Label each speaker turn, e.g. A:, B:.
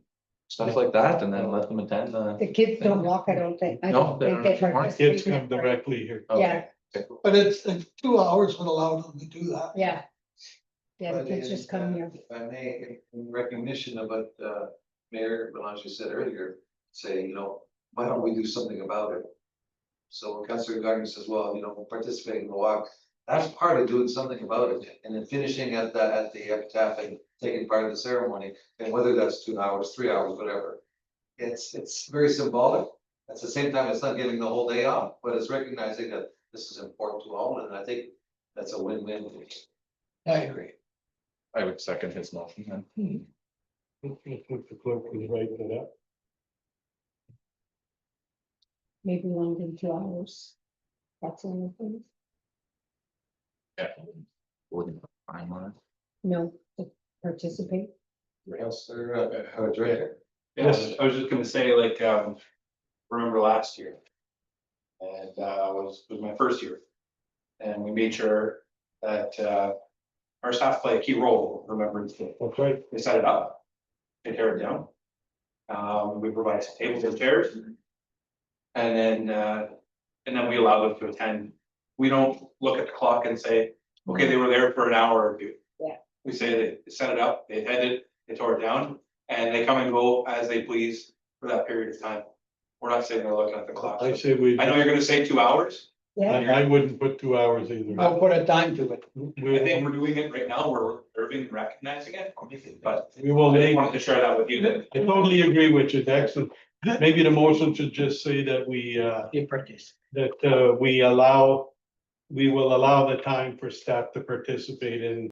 A: stuff like that, and then let them attend the.
B: The kids don't walk, I don't think. I
A: No,
B: don't
A: they're-
B: think they
A: our
B: participate
C: Kids
B: in
C: come
B: that.
C: directly here.
A: oh,
B: Yeah,
D: But it's, it's two hours would allow them to do that.
B: yeah. Yeah, the
E: But
B: kids
E: in,
B: just come
E: uh,
B: here.
E: If I may, in recognition of what uh Mayor Belanger said earlier, saying, you know, why don't we do something about it? So when Councilor Gardner says, well, you know, participating in the walk, that's part of doing something about it, and then finishing at the at the epitaph and taking part in the ceremony, and whether that's two hours, three hours, whatever. It's it's very symbolic, at the same time, it's not giving the whole day off, but it's recognizing that this is important to all, and I think that's a win-win.
D: I agree.
A: I would second his motion then.
C: I think the clerk is writing it up.
B: Maybe longer than two hours. That's one of them.
A: Yeah. Wouldn't find one.
B: No, to participate.
E: Counselor, uh, uh, Director.
F: Yes, I was just gonna say, like, um, remember last year? And, uh, was, was my first year. And we made sure that, uh, our staff play a key role, remembering to,
C: That's right.
F: they set it up. They tear it down. Um, we provide some tables and chairs. And then, uh, and then we allow them to attend. We don't look at the clock and say, okay, they were there for an hour or two.
B: Yeah.
F: We say they set it up, they attended, they tore it down, and they come and go as they please for that period of time. We're not sitting there looking at the clock.
C: I say we,
F: I know
C: I
F: you're gonna say two hours.
B: Yeah,
C: I wouldn't put two hours either.
D: I'll put a time to it.
F: I
C: We
F: think we're doing it right now. We're observing, and recognizing it, but
C: we will
F: I just
C: make,
F: wanted to share that with you
C: I
F: that
C: totally agree with you, Dexter. Maybe the motion should just say that we, uh,
D: You participate.
C: that, uh, we allow, we will allow the time for staff to participate in